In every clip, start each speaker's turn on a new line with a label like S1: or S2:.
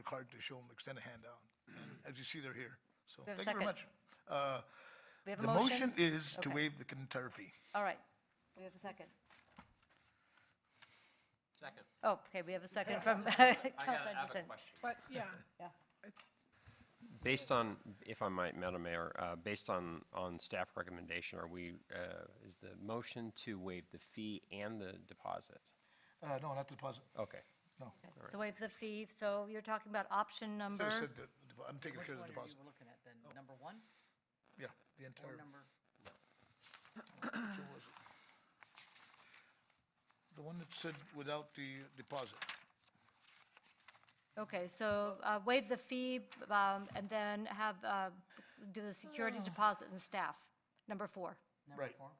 S1: card to show them, extend a hand out. And As you see, they're here. So
S2: We have
S1: thank
S2: a
S1: you very much.
S2: second.
S1: Uh,
S2: We have
S1: The
S2: a motion?
S1: motion is to
S2: Okay.
S1: waive the entire fee.
S2: All right. We have a second.
S3: Second.
S2: Oh, okay, we have a second from Counselor
S3: I got- I have a
S2: Anderson.
S3: question.
S4: But, yeah,
S2: Yeah.
S5: Based on, if I might, Madam Mayor, uh, based on, on staff recommendation, are we, uh, is the motion to waive the fee and the deposit?
S1: Uh, No, not the deposit,
S5: Okay.
S1: no.
S2: Okay, So waive the fee. So you're talking about option
S1: Should have
S2: number,
S1: said the- the depo- I'm taking
S6: Which
S1: care of the
S6: one are you
S1: deposit.
S6: looking at then?
S1: Oh.
S6: Number one
S1: Yeah, the
S6: or
S1: entire.
S6: number?
S1: which one was it? The one that said without the deposit.
S2: okay, so uh, waive the fee um, and then have, uh, do the security deposit and staff, number four.
S6: Number
S1: Right.
S6: four?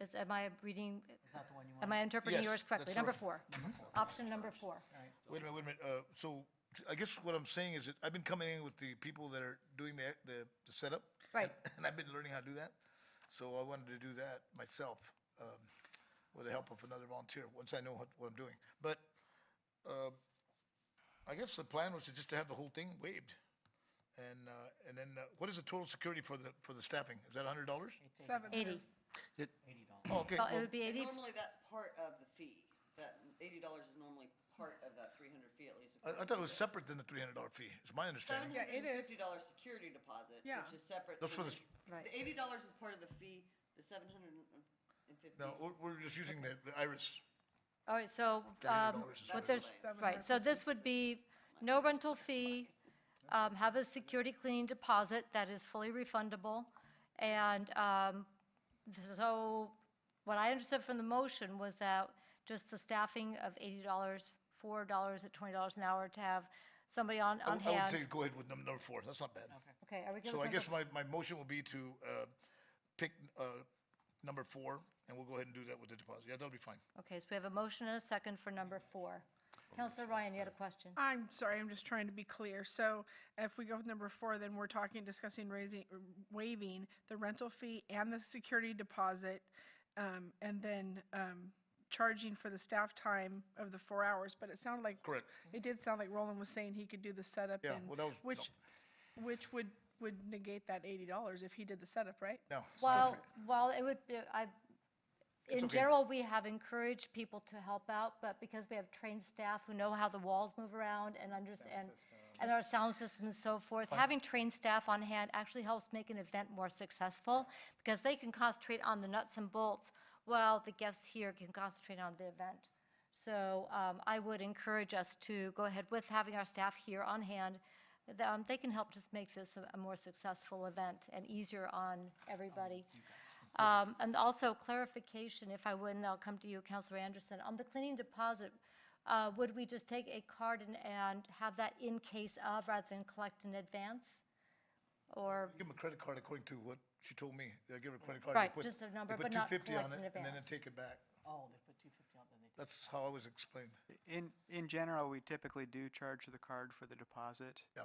S2: Is, am I reading,
S6: Is that the one you want?
S2: am I interpreting
S1: Yes,
S2: yours correctly?
S1: that's
S2: Number
S1: right.
S2: four. Option number four.
S1: Wait a minute, wait a minute. uh, So I guess what I'm saying is that I've been coming in with the people that are doing the, the the setup.
S2: Right.
S1: and- And I've been learning how to do that. So I wanted to do that myself um, with the help of another volunteer, once I know what, what I'm doing. But uh, I guess the plan was to just to have the whole thing waived. And, uh, and then uh, what is the total security for the, for the staffing? Is that $100?
S4: seven.
S2: 80.
S1: Oh, okay.
S2: Well, it
S1: well,
S2: would be 80.
S7: Normally, that's part of the fee. That eighty dollars is normally part of that three hundred fee at least.
S1: I I thought it was separate than the $300 fee, is my
S7: Seven
S1: understanding.
S4: Yeah, it
S7: hundred and
S4: is.
S7: fifty dollar security deposit,
S4: Yeah.
S7: which is separate.
S1: That's
S7: from
S1: for the-
S2: Right.
S7: The eighty dollars is part of the fee, the seven hundred and fifty.
S1: No, we're, we're just using the the IRIS.
S2: All right, so
S1: $300 is
S2: um, what
S1: what
S2: there's,
S7: it
S2: right, so this would be no rental fee, um, have a security cleaning deposit that is fully refundable, and um, so what I understood from the motion was that just the staffing of $80, $4 at $20 an hour to have somebody on,
S1: I
S2: on
S1: would- I would say
S2: hand.
S1: go ahead with num- number four, that's not bad.
S2: Okay, are we good
S1: So I
S2: with
S1: guess
S2: number?
S1: my, my motion will be to uh, pick uh, number four, and we'll go ahead and do that with the deposit. Yeah, that'll be fine.
S2: Okay, so we have a motion and a second for number four. Counselor Ryan, you had a question?
S4: I'm sorry, I'm just trying to be clear. So if we go with number four, then we're talking, discussing raising, waiving the rental fee and the security deposit, um, and then, um, charging for the staff time of the four hours, but it sounded like.
S1: Correct.
S4: It did sound like Roland was saying he could do the setup
S1: Yeah,
S4: and.
S1: well, that was-
S4: Which, which would, would negate that eighty dollars if he did the setup, right?
S1: No. it's
S2: Well,
S1: different.
S2: well, it would, be- I, in
S1: okay.
S2: general, we have encouraged people to help out, but because we have trained staff who know how the walls move around and understand, and our sound system and so forth, having trained staff on hand actually helps make an event more successful, because they can concentrate on the nuts and bolts, while the guests here can concentrate on the event. So um, I would encourage us to go ahead with having our staff here on hand. Th- um, They can help just make this a a more successful event and easier on everybody.
S5: Oh,
S2: Um, And also clarification, if I would, and I'll come to you, Counselor Anderson, on the cleaning deposit, uh, would we just take a card and- and have that in case of rather than collect in advance? Or,
S1: Give them a credit card according to what she told me. They'll give her a credit card. they
S2: Right,
S1: put-
S2: just a number,
S1: they
S2: but not
S1: put 250 on
S2: collect in
S1: it, And then they
S2: advance.
S1: take it back.
S6: Oh, they put two fifty on, then they did.
S1: That's how I was explained.
S8: In, in general, we typically do charge the card for the deposit.
S1: Yeah.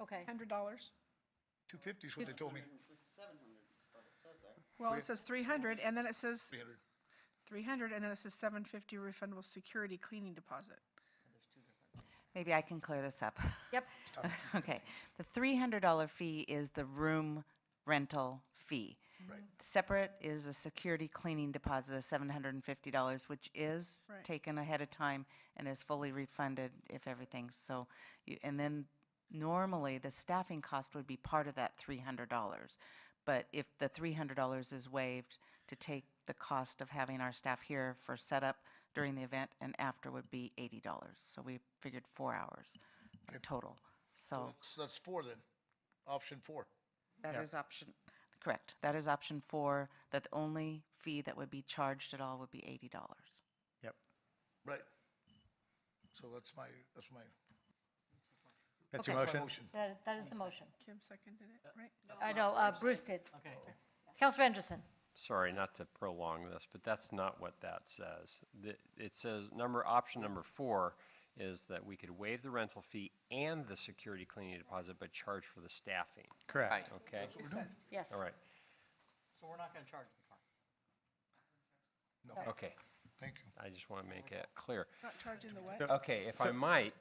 S2: okay,
S4: Hundred dollars?
S1: 250 is what they told me,
S7: Seven hundred, what it says there.
S4: Well, it says three hundred, and then it says
S1: 300.
S4: 300, and then it says 750 refundable security cleaning deposit.
S9: Maybe I can clear this up.
S2: yep,
S9: Okay, the $300 fee is the room rental fee.
S1: Right.
S9: Separate is a security cleaning deposit of $750, which is
S4: Right.
S9: taken ahead of time and is fully refunded if everything, so, you- and then normally the staffing cost would be part of that $300. But if the $300 is waived, to take the cost of having our staff here for setup during the event and after would be $80. So we figured four hours total, so.
S1: That's, that's four then, option four.
S9: That is option. Correct. That is option four, that the only fee that would be charged at all would be $80.
S10: Yep.
S1: Right. So that's my, that's my,
S10: That's
S2: Okay.
S10: your
S1: that's
S10: motion?
S1: my motion.
S2: that that is the motion.
S4: Kim seconded it, right?
S2: I know, uh, Bruce did.
S6: Okay.
S2: Counselor Anderson?
S5: Sorry, not to prolong this, but that's not what that says. The- It says, number, option number four is that we could waive the rental fee and the security cleaning deposit, but charge for the staffing,
S10: Correct.
S5: okay?
S2: Yes.
S5: All right,
S6: So we're not gonna charge the car.
S1: No.
S5: okay.
S11: Thank you.
S4: I just want to make it clear.
S5: Not charging the what?
S4: Okay, if I might,